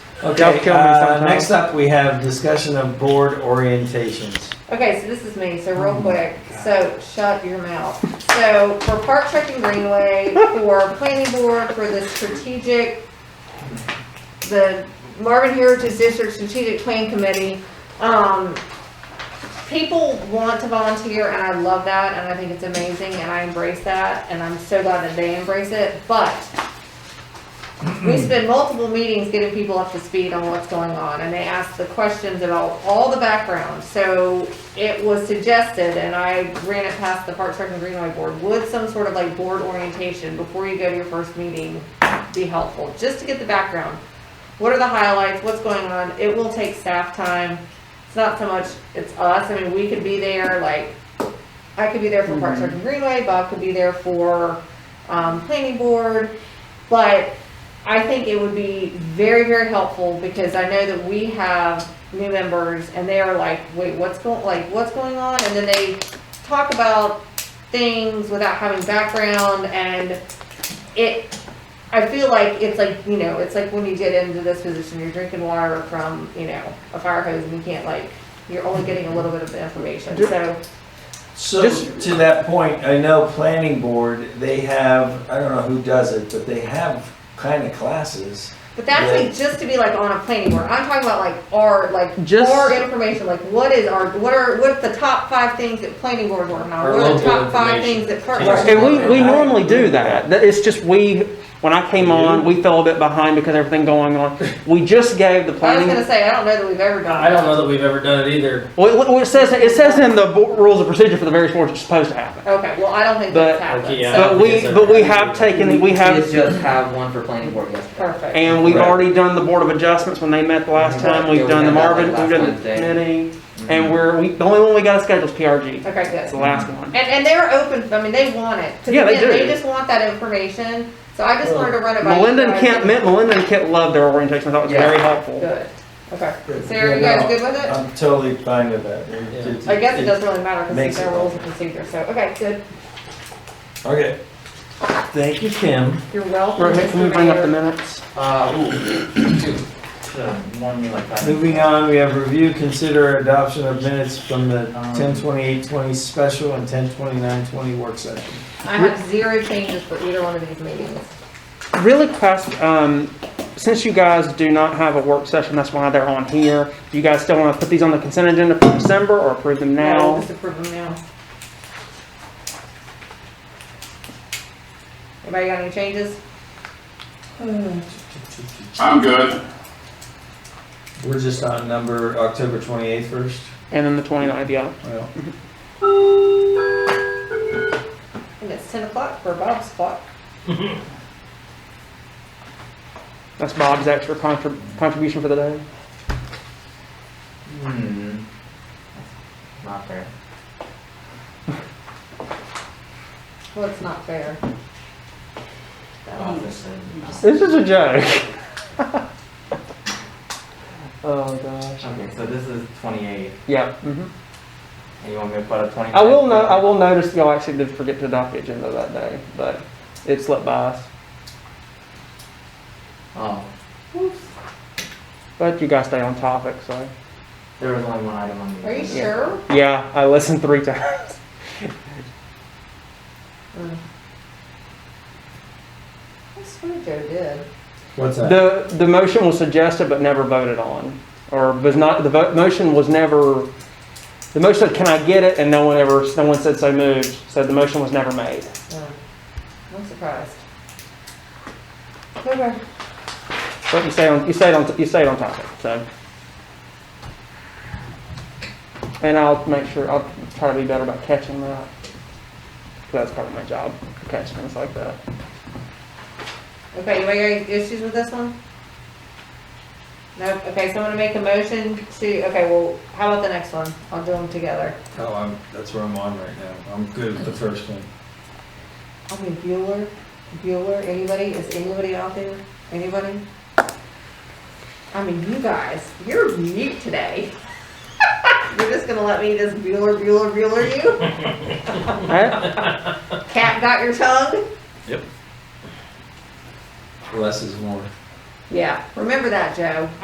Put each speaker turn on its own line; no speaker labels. Okay,
Don't kill me
uh,
sometime.
next up, we have discussion of board orientations.
Okay, so this is me, so real quick, so shut your mouth. So for Park Trek and Greenway, for planning board, for the strategic, the Marvin Heritage District Strategic Plan Committee, um, people want to volunteer and I love that and I think it's amazing and I embrace that and I'm so glad that they embrace it, but we spend multiple meetings getting people up to speed on what's going on, and they ask the questions about all the background. So it was suggested, and I ran it past the Parks, Rec, and Greenway Board, would some sort of like board orientation before you go to your first meeting be helpful, just to get the background? What are the highlights, what's going on? It will take staff time. It's not so much, it's us, I mean, we could be there, like, I could be there for Parks, Rec, and Greenway, Bob could be there for, um, planning board, but I think it would be very, very helpful because I know that we have new members and they are like, wait, what's going, like, what's going on? And then they talk about things without having background and it, I feel like it's like, you know, it's like when you get into this position, you're drinking water from, you know, a fire hose and you can't like, you're only getting a little bit of the information, so.
So
Just-
to that point, I know planning board, they have, I don't know who does it, but they have kind of classes.
But that's like just to be like on a planning board. I'm talking about like our like
Just-
our information. Like what is our what are what's the top five things that planning board working on?
Our
What are the
local
top five things
information.
that park?
Right.
And we, we normally do that. That- It's just we, when I came on, we fell a bit behind because of everything going on. We just gave the
I was gonna
planning.
say I don't know that we've ever done.
I don't know
that.
that we've ever done it either.
Well, it- well, it says, it says in the bo- rules of procedure for the various boards it's supposed to happen.
Okay, well I don't think
But- uh,
that's happened.
Okay, yeah.
so-
But we, but we have taken, we
did
have,
just have one for planning board yesterday.
perfect.
and we've
Right.
already done the board of adjustments when they met the last time.
Yeah,
We've
we
done the
had that
Marvin, we've
last Mm-hmm.
done the
Wednesday.
committee, and we're, we, the only one we got scheduled is PRG.
okay,
It's
good.
the last one.
And and they're open. I mean, they want it. 'Cause
Yeah, they
again,
do.
They just want that information. So I just wanted to run it by. you
Melinda and
guys.
Kent, Melinda and Kent loved their orientation. I thought it was
Yeah.
very helpful.
Good. Okay. So are you guys good with it?
Uh,
I'm totally fine with that. It- it-
I guess it doesn't really matter because
makes
it's their
it-
rules and procedure. So okay, good.
Okay. Thank you, Kim.
You're welcome.
Right, can we
Mr.
bring up the
Mayor.
minutes?
Uh, ooh, two. Should've warned you like that.
Moving on, we have review, consider adoption of minutes from the ten twenty-eight twenty special and ten twenty-nine twenty work session.
I have zero changes for either one of these meetings.
Really fast, um, since you guys do not have a work session, that's why they're on here. Do you guys still want to put these on the consent agenda for December or approve them
I'll
now?
Disapprove them now. Anybody got any changes?
I'm good.
We're just on number October twenty-eighth first.
And then the 29th, yeah.
Well,
And it's ten o'clock for Bob's clock.
That's Bob's extra contrib- contribution for the day.
Hmm. Not fair.
Well, it's not fair. Um,
Office and-
This is a joke. Oh, gosh.
Okay, so this is twenty-eight,
Yeah. mhm.
and you want me to put a twenty-nine?
I will no, I will notice y'all actually did forget to adopt the agenda that day, but it slipped by us.
Oh,
But you guys stay on topic, so.
there was only one item on the.
Are you
agenda.
sure?
Yeah, I listened three times.
Mm. I swear Joe did.
What's that?
The, the motion was suggested but never voted on, or was not, the vote, motion was never, the motion said, can I get it? And no one ever, no one said so moved, so the motion was never made.
Mm. I'm surprised. Okay.
But you stayed on, you stayed on, you stayed on topic, so. And I'll make sure, I'll try to be better about catching that. 'Cause That's part of my job, catching things like that.
Okay, anybody got any issues with this one? Nope, okay, so I'm gonna make a motion to, okay, well, how about the next one? I'll do them together.
Oh, I'm, that's where I'm on right now. I'm good with the first one.
I mean, Bueller, Bueller, anybody, is anybody out there? Anybody? I mean, you guys, you're mute today. You're just gonna let me just Bueller, Bueller, Bueller you?
Alright,
Cat got your tongue?
Less is more.
Yeah, remember that, Joe.